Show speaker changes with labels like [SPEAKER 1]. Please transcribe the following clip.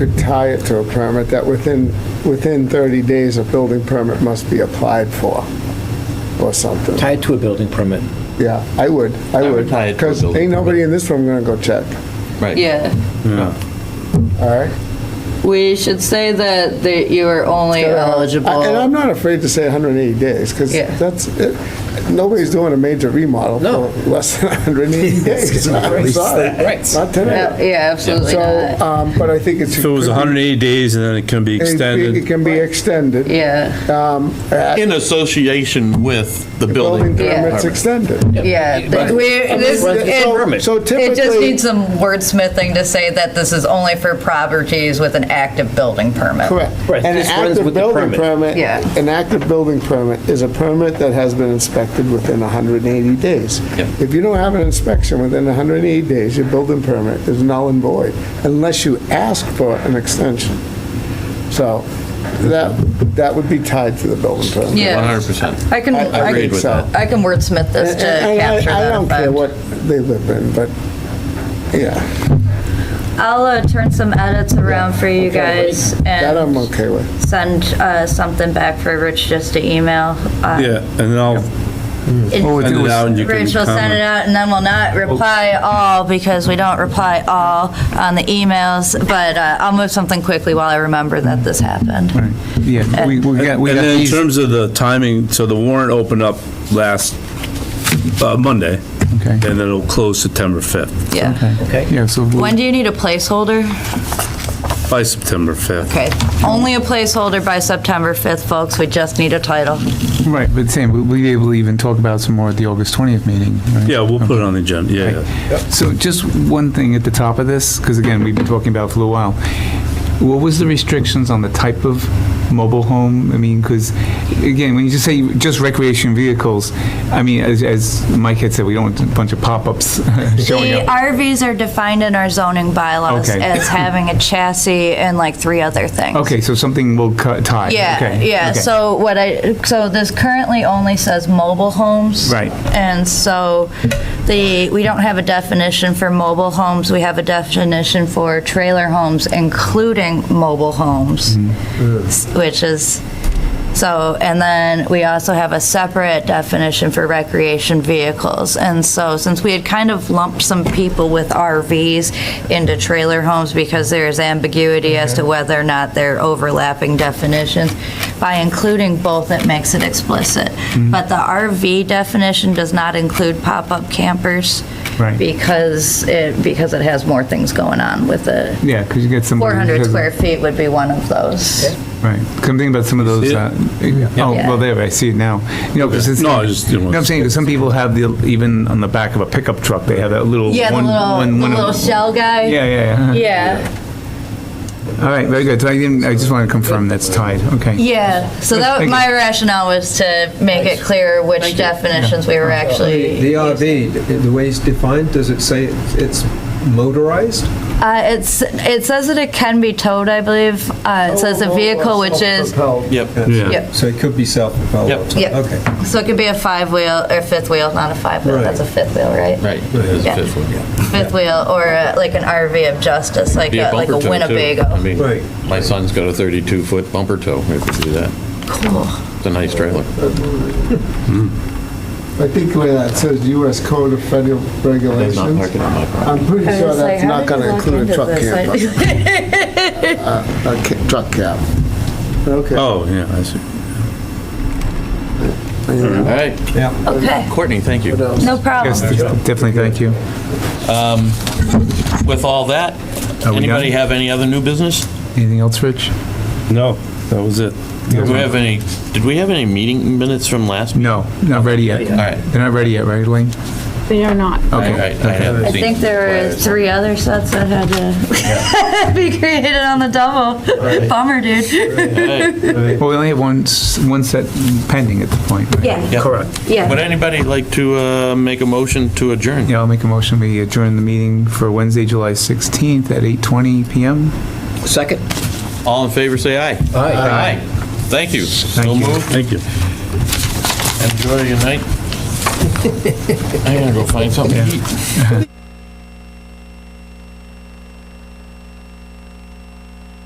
[SPEAKER 1] could tie it to a permit that within, within 30 days, a building permit must be applied for, or something.
[SPEAKER 2] Tie it to a building permit.
[SPEAKER 1] Yeah, I would, I
[SPEAKER 3] I would
[SPEAKER 1] would.
[SPEAKER 3] tie it to a
[SPEAKER 1] Because
[SPEAKER 3] building
[SPEAKER 1] ain't nobody
[SPEAKER 3] permit.
[SPEAKER 1] in this room gonna go check,
[SPEAKER 3] Right.
[SPEAKER 4] Yeah,
[SPEAKER 1] all right?
[SPEAKER 4] we should say that, that you are only
[SPEAKER 1] And I'm
[SPEAKER 4] eligible. Uh,
[SPEAKER 1] not afraid to say 180 days, because
[SPEAKER 4] Yeah.
[SPEAKER 1] that's, it- nobody's doing a major remodel
[SPEAKER 2] No.
[SPEAKER 1] for less than 180 days. I'm sorry.
[SPEAKER 2] Right.
[SPEAKER 1] Not
[SPEAKER 4] No,
[SPEAKER 1] today.
[SPEAKER 4] Yeah, absolutely
[SPEAKER 1] So,
[SPEAKER 5] uh,
[SPEAKER 4] not.
[SPEAKER 1] um, but I think it's.
[SPEAKER 6] If it was 180 days and then it can be
[SPEAKER 1] it- It
[SPEAKER 6] extended,
[SPEAKER 1] can be extended.
[SPEAKER 4] Yeah,
[SPEAKER 1] um, at
[SPEAKER 3] In association with the
[SPEAKER 1] Building
[SPEAKER 3] building.
[SPEAKER 4] Yeah.
[SPEAKER 1] permits extended.
[SPEAKER 4] yeah.
[SPEAKER 2] But-
[SPEAKER 4] that we're- this-
[SPEAKER 2] Right.
[SPEAKER 4] it-
[SPEAKER 2] So-
[SPEAKER 1] So
[SPEAKER 2] Permit.
[SPEAKER 1] so
[SPEAKER 4] It just needs some
[SPEAKER 1] typically,
[SPEAKER 4] wordsmithing to say that this is only for properties with an active building permit.
[SPEAKER 1] correct.
[SPEAKER 2] Right,
[SPEAKER 1] An
[SPEAKER 2] this runs
[SPEAKER 1] active
[SPEAKER 2] with the
[SPEAKER 1] building
[SPEAKER 2] permit.
[SPEAKER 1] permit,
[SPEAKER 4] Yeah.
[SPEAKER 1] an active building permit is a permit that has been inspected within 180 days.
[SPEAKER 3] Yeah.
[SPEAKER 1] If you don't have an inspection within 180 days, your building permit is null and void unless you ask for an extension. So that, that would be tied to the building permit.
[SPEAKER 4] Yeah.
[SPEAKER 3] 100%.
[SPEAKER 4] I can,
[SPEAKER 1] I- I
[SPEAKER 4] I
[SPEAKER 3] agreed
[SPEAKER 4] can-
[SPEAKER 3] with
[SPEAKER 1] that.
[SPEAKER 4] I can wordsmith this to
[SPEAKER 1] And- and I-
[SPEAKER 4] capture
[SPEAKER 1] I
[SPEAKER 4] that
[SPEAKER 1] don't care
[SPEAKER 4] effect.
[SPEAKER 1] what they live in, but, yeah.
[SPEAKER 5] I'll uh, turn some edits around for you guys
[SPEAKER 1] That I'm
[SPEAKER 5] and
[SPEAKER 1] okay with.
[SPEAKER 5] send uh, something back for Rich just to email. uh,
[SPEAKER 6] yeah, and then I'll
[SPEAKER 5] it-
[SPEAKER 7] Oh,
[SPEAKER 6] send it out and you can
[SPEAKER 5] Rich will send it
[SPEAKER 6] comment.
[SPEAKER 5] out and then we'll not reply all because we don't reply all on the emails. But uh, I'll move something quickly while I remember that this happened.
[SPEAKER 7] Right.
[SPEAKER 5] Uh,
[SPEAKER 7] Yeah, we, we got,
[SPEAKER 6] And
[SPEAKER 7] we got
[SPEAKER 6] then in
[SPEAKER 7] these.
[SPEAKER 6] terms of the timing, so the warrant opened up last uh, Monday,
[SPEAKER 7] Okay.
[SPEAKER 6] and then it'll close September 5th,
[SPEAKER 5] Yeah.
[SPEAKER 2] Okay.
[SPEAKER 7] Yeah, so
[SPEAKER 5] When
[SPEAKER 7] we'll-
[SPEAKER 5] do you need a placeholder?
[SPEAKER 6] by September 5th.
[SPEAKER 5] Okay, only a placeholder by September 5th, folks. We just need a title.
[SPEAKER 7] right, but same, we- we'll be able to even talk about some more at the August 20th meeting. right?
[SPEAKER 6] Yeah, we'll put it on the agenda, yeah, yeah.
[SPEAKER 7] So just one thing at the top of this, because again, we've been talking about it for a while. What was the restrictions on the type of mobile home? I mean, because again, when you just say just recreation vehicles, I mean, as, as Mike had said, we don't want a bunch of pop-ups showing
[SPEAKER 5] The
[SPEAKER 7] up.
[SPEAKER 5] RVs are defined in our zoning bylaws
[SPEAKER 7] Okay.
[SPEAKER 5] as having a chassis and like three other things.
[SPEAKER 7] Okay, so something will cut, tie.
[SPEAKER 5] Yeah,
[SPEAKER 7] Okay,
[SPEAKER 5] yeah.
[SPEAKER 7] okay.
[SPEAKER 5] So what I, so this currently only says mobile homes.
[SPEAKER 7] Right.
[SPEAKER 5] And so the, we don't have a definition for mobile homes. We have a definition for trailer homes, including mobile homes, s-
[SPEAKER 7] Mm-hmm.
[SPEAKER 5] which is, so, and then we also have a separate definition for recreation vehicles. And so since we had kind of lumped some people with RVs into trailer homes because there is ambiguity as to whether or not they're overlapping definitions, by including both, it makes it explicit.
[SPEAKER 7] Mm-hmm.
[SPEAKER 5] But the RV definition does not include pop-up campers.
[SPEAKER 7] Right.
[SPEAKER 5] Because it, because it has more things going on with it.
[SPEAKER 7] Yeah, because you get some.
[SPEAKER 5] 400 square feet would be one of those.
[SPEAKER 7] Right. Come think about some of those.
[SPEAKER 6] see it?
[SPEAKER 7] Uh, oh, well, there, I see it now. You know, 'cause it's-
[SPEAKER 6] No, I just didn't
[SPEAKER 7] You
[SPEAKER 6] want
[SPEAKER 7] know what
[SPEAKER 6] to-
[SPEAKER 7] I'm saying? 'Cause some people have the, even on the back of a pickup truck, they have that little.
[SPEAKER 5] Yeah, the
[SPEAKER 7] one- one-
[SPEAKER 5] little, the
[SPEAKER 7] one of-
[SPEAKER 5] little shell guy.
[SPEAKER 7] Yeah, yeah, yeah.
[SPEAKER 5] Yeah.
[SPEAKER 7] All right, very good. So I didn't, I just want to confirm that's tied. Okay.
[SPEAKER 5] Yeah, so that,
[SPEAKER 7] Thank
[SPEAKER 5] my rationale was to make it clear which definitions we were
[SPEAKER 8] The
[SPEAKER 5] actually, uh,
[SPEAKER 8] RV, the way it's defined, does it say it's motorized?
[SPEAKER 5] Uh, it's, it says that it can be towed, I believe. Uh, it says a vehicle which is,
[SPEAKER 8] Self-propelled.
[SPEAKER 3] Yep.
[SPEAKER 6] Yeah.
[SPEAKER 5] Yep.
[SPEAKER 8] So it could be self-propelled.
[SPEAKER 3] Yep.
[SPEAKER 5] yeah.
[SPEAKER 8] Okay.
[SPEAKER 5] So it could be a five wheel or fifth wheel, not a five wheel,
[SPEAKER 8] Right.
[SPEAKER 5] that's a fifth wheel, right?
[SPEAKER 3] Right. That's
[SPEAKER 5] Yeah.
[SPEAKER 3] the fifth one, yeah.
[SPEAKER 5] Fifth wheel or uh, like an RV of justice, like
[SPEAKER 3] Be
[SPEAKER 5] a, like
[SPEAKER 3] bumper
[SPEAKER 5] a
[SPEAKER 3] tow, too. I
[SPEAKER 5] Winnebago.
[SPEAKER 3] mean,
[SPEAKER 8] Right.
[SPEAKER 3] my son's got a 32-foot bumper tow, if you do that.
[SPEAKER 5] Cool.
[SPEAKER 3] It's a nice trailer.
[SPEAKER 1] I think where that says U.S. Code of Federal
[SPEAKER 3] They're not
[SPEAKER 1] Regulations,
[SPEAKER 3] parking on my property.
[SPEAKER 1] I'm pretty sure that's not going to include a truck camper,
[SPEAKER 5] camper.
[SPEAKER 1] a ca- truck cab. Okay.
[SPEAKER 6] Oh, yeah, I see.
[SPEAKER 3] All right.
[SPEAKER 8] Yeah.
[SPEAKER 5] Okay,
[SPEAKER 3] Courtney, thank you.
[SPEAKER 5] no problem.
[SPEAKER 7] Yes, definitely. Thank you.
[SPEAKER 3] With all that,
[SPEAKER 7] we done?
[SPEAKER 3] anybody have any other new business?
[SPEAKER 7] Anything else, Rich?
[SPEAKER 6] No, that was it.
[SPEAKER 3] Do we have any, did we have any meeting minutes from last? meeting?
[SPEAKER 7] No, not ready yet.
[SPEAKER 3] All right.
[SPEAKER 7] They're not ready yet, right, Elaine?
[SPEAKER 9] They are not.
[SPEAKER 3] All
[SPEAKER 7] Okay.
[SPEAKER 3] right, I haven't
[SPEAKER 5] I
[SPEAKER 3] seen
[SPEAKER 5] think there were
[SPEAKER 3] flyers.
[SPEAKER 5] three other sets that had to be created on the double. Bummer, dude.
[SPEAKER 3] Hey,
[SPEAKER 7] Well, we only have one, s- one set pending at the point. right?
[SPEAKER 5] Yeah,
[SPEAKER 3] yeah.
[SPEAKER 6] Correct.
[SPEAKER 3] Would
[SPEAKER 5] yeah.
[SPEAKER 3] anybody like to uh, make a motion to adjourn?
[SPEAKER 7] Yeah, I'll make a motion. We adjourn the meeting for Wednesday, July 16th at 8:20 PM.
[SPEAKER 2] Second?
[SPEAKER 3] All in favor, say aye.
[SPEAKER 2] Aye.
[SPEAKER 3] Thank you. So
[SPEAKER 7] you.
[SPEAKER 3] moved.
[SPEAKER 6] Thank you.
[SPEAKER 3] Enjoy your night. I'm gonna go find something to eat.